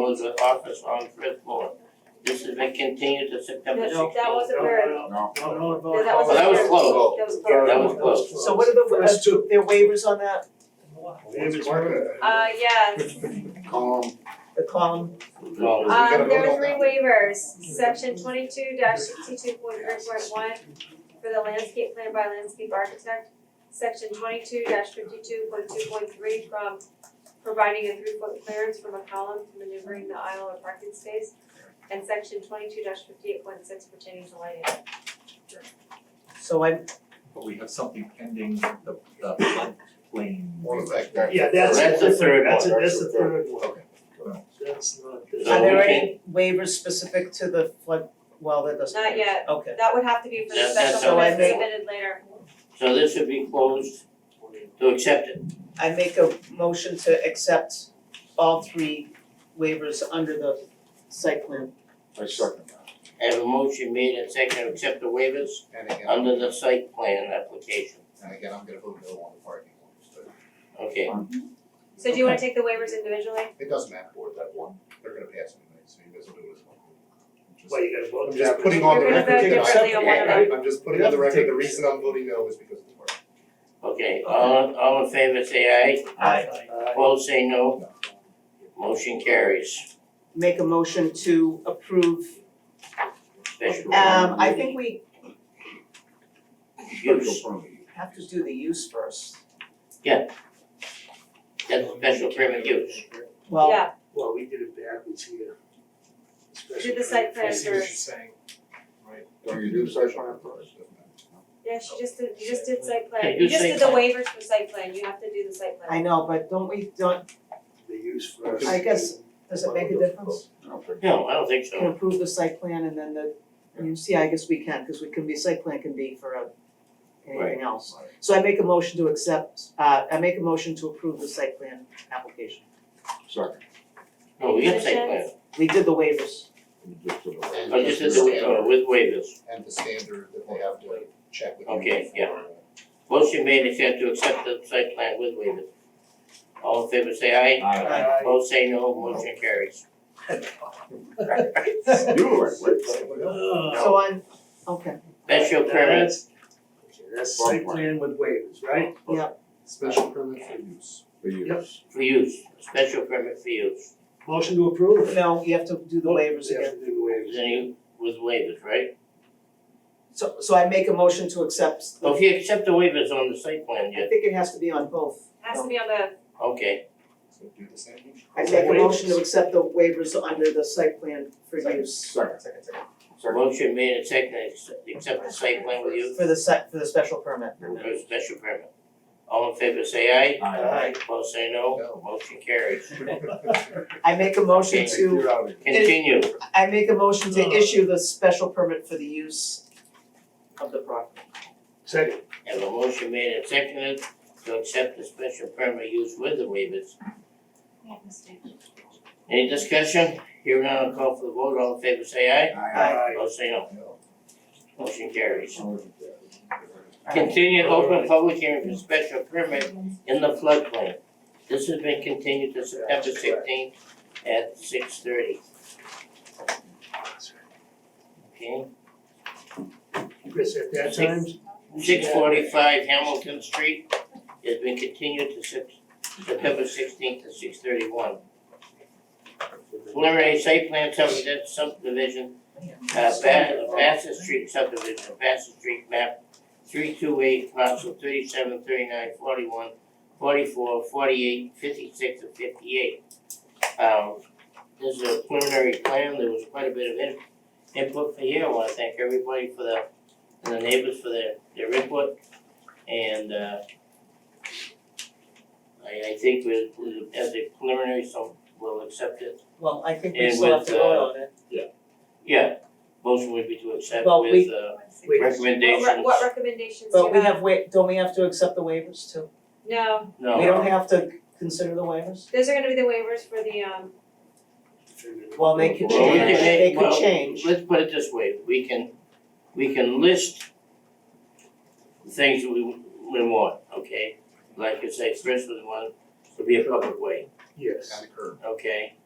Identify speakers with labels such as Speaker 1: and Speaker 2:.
Speaker 1: well as an office on fifth floor. This has been continued to September
Speaker 2: Yes,
Speaker 1: sixteenth.
Speaker 2: that wasn't very,
Speaker 3: No.
Speaker 4: No, no, no.
Speaker 2: Yeah, that was
Speaker 1: Well, that was
Speaker 2: very-
Speaker 1: close.
Speaker 2: that was
Speaker 1: That
Speaker 2: very.
Speaker 1: was close.
Speaker 5: So what are the,
Speaker 4: First
Speaker 5: uh,
Speaker 4: two.
Speaker 5: there are waivers on that,
Speaker 2: Uh, yes,
Speaker 3: Column,
Speaker 5: the column?
Speaker 1: No,
Speaker 3: Uh,
Speaker 2: um, there were three waivers, section twenty-two sixty-two point three point one for the landscape plan by landscape architect, section twenty-two fifty-two point two point three from providing a three-foot clearance from a column to maneuvering the aisle or parking space, and section twenty-two fifty-eight point six pertaining to lighting.
Speaker 5: So I,
Speaker 6: But we have something pending, the, the flood plain.
Speaker 3: one of that guy.
Speaker 4: Yeah, that's a
Speaker 1: That's the third
Speaker 4: different, that's a,
Speaker 1: one.
Speaker 4: that's the third one.
Speaker 6: Okay.
Speaker 4: That's not
Speaker 1: So
Speaker 4: this.
Speaker 5: are there
Speaker 1: we
Speaker 5: any waivers specific to the flood, well, that doesn't.
Speaker 2: Not yet,
Speaker 5: Okay,
Speaker 2: that would have to be for the
Speaker 1: That- that's
Speaker 2: special
Speaker 5: all I
Speaker 2: permit
Speaker 5: make.
Speaker 2: submitted later.
Speaker 1: So this would be closed to accept it.
Speaker 5: I make a motion to accept all three waivers under the site plan.
Speaker 3: I second that.
Speaker 1: I have a motion made and seconded to accept the waivers
Speaker 3: And again,
Speaker 1: under the site plan application.
Speaker 3: and again, I'm gonna vote no on the parking ones, but
Speaker 1: Okay,
Speaker 2: So do you wanna take the waivers individually?
Speaker 3: it doesn't matter for that one, they're gonna pass anyway, so you guys will do it as well. Just-
Speaker 4: Well, you gotta vote.
Speaker 3: I'm just putting on the
Speaker 2: We're gonna
Speaker 3: record,
Speaker 2: vote
Speaker 3: you know,
Speaker 2: differently on one of
Speaker 3: I- I'm just putting on the
Speaker 5: Yeah.
Speaker 3: record, the reason I'm voting no is because of the parking.
Speaker 1: okay, all all in favor say aye,
Speaker 4: Aye.
Speaker 1: opposed say no, motion carries.
Speaker 5: Make a motion to approve,
Speaker 1: Special
Speaker 5: um, I think we
Speaker 1: use,
Speaker 5: have to do the use first.
Speaker 1: that's special permit use.
Speaker 5: Well,
Speaker 2: Yeah,
Speaker 4: Well, we did it backwards here.
Speaker 2: do the site plan first.
Speaker 4: saying.
Speaker 3: Don't you do the site plan first?
Speaker 2: Yeah, she just did, you just did site
Speaker 1: Yeah,
Speaker 2: plan,
Speaker 1: do
Speaker 2: you just
Speaker 1: site
Speaker 2: did the
Speaker 1: plan.
Speaker 2: waivers for site plan, you have to do the site plan.
Speaker 5: I know, but don't we, don't,
Speaker 4: The use first.
Speaker 5: I guess- does it make a difference?
Speaker 1: No, I don't think
Speaker 5: Can
Speaker 1: so.
Speaker 5: approve the site plan and then the, you see, I guess we can, cause we can be, site plan can be for a, anything else.
Speaker 3: Right.
Speaker 5: So I make a motion to accept, uh, I make a motion to approve the site plan application.
Speaker 3: Second.
Speaker 1: No, Oh, we got site plan,
Speaker 5: We did the waivers.
Speaker 1: I just did the, uh, with waivers.
Speaker 3: And the standard that they have to check with you.
Speaker 1: Okay,
Speaker 3: before,
Speaker 1: yeah. Motion made and accepted to accept the site plan with waivers. All in favor say aye,
Speaker 6: Aye.
Speaker 4: Aye.
Speaker 1: opposed say no, motion carries.
Speaker 3: uh, You were like, what?
Speaker 4: Uh,
Speaker 5: So on, okay,
Speaker 1: Special permit,
Speaker 4: That's, okay, that's site plan with waivers, right?
Speaker 3: Special permit for use. For use.
Speaker 1: for use, special permit for use.
Speaker 4: Motion to approve.
Speaker 5: no, you have to do the waivers
Speaker 4: Yeah,
Speaker 5: again.
Speaker 4: do the
Speaker 1: Is
Speaker 4: waivers.
Speaker 1: any with waivers, right?
Speaker 5: So, so I make a motion to accept, the-
Speaker 1: Well, if you accept the waivers on the site plan
Speaker 5: I
Speaker 1: yet,
Speaker 5: think it has to be on both.
Speaker 2: Has to be on the,
Speaker 1: okay,
Speaker 3: So do the same thing.
Speaker 5: I make a motion to
Speaker 4: Waivers.
Speaker 5: accept the waivers under the site plan for use,
Speaker 3: Second, second, second.
Speaker 1: motion made and seconded to accept the site plan with you
Speaker 5: for the site, for the special permit.
Speaker 1: for a special permit. All in favor say aye,
Speaker 4: Aye.
Speaker 1: opposed say no,
Speaker 3: No.
Speaker 1: motion carries.
Speaker 5: I make a motion
Speaker 1: Okay.
Speaker 5: to,
Speaker 3: You're out of here.
Speaker 1: Continue,
Speaker 5: I make a motion to issue the special permit for the use of the property.
Speaker 4: Second.
Speaker 1: have a motion made and seconded to accept the special permit use with the waivers. Any discussion? Here now, I'll call for the vote, all in favor say
Speaker 3: Aye.
Speaker 1: aye, opposed say no,
Speaker 3: No.
Speaker 1: motion carries.
Speaker 5: All right.
Speaker 1: Continued open public hearing for special permit in the floodplain. This has been continued to September sixteenth at six thirty, okay?
Speaker 4: Chris, at that time,
Speaker 1: Six forty-five Hamilton Street has been continued to Sep- September sixteenth to six thirty-one. Preliminary site plan subdivision, subdivision, uh, Ba- Bassett Street subdivision, Bassett Street map three two eight, parcel thirty-seven, thirty-nine, forty-one, forty-four, forty-eight, fifty-six, and fifty-eight. Um, this is a preliminary plan, there was quite a bit of in- input for here, I wanna thank everybody for the, and the neighbors for their, their input, and, uh, I, I think with, with- as a preliminary, so we'll accept it
Speaker 5: Well, I think we
Speaker 1: And
Speaker 5: still have to
Speaker 1: with,
Speaker 5: vote on it.
Speaker 1: yeah, motion would be to accept
Speaker 5: Well,
Speaker 1: with
Speaker 5: we-
Speaker 1: uh
Speaker 4: Wait.
Speaker 1: recommendations.
Speaker 2: what re- what recommendations do you
Speaker 5: But we have wa- don't we have to accept the waivers too?
Speaker 2: No,
Speaker 5: We
Speaker 1: No,
Speaker 5: don't have to consider the waivers?
Speaker 2: those are gonna be the waivers for the um,
Speaker 5: Well, they could
Speaker 1: Well, we can
Speaker 5: change, they
Speaker 1: make-
Speaker 5: could
Speaker 1: well,
Speaker 5: change.
Speaker 1: let's put it this way, we can, we can list things we we want, okay? Like you say, first one, one would be a public way,
Speaker 4: Yes.
Speaker 3: Kind of curve.
Speaker 1: okay?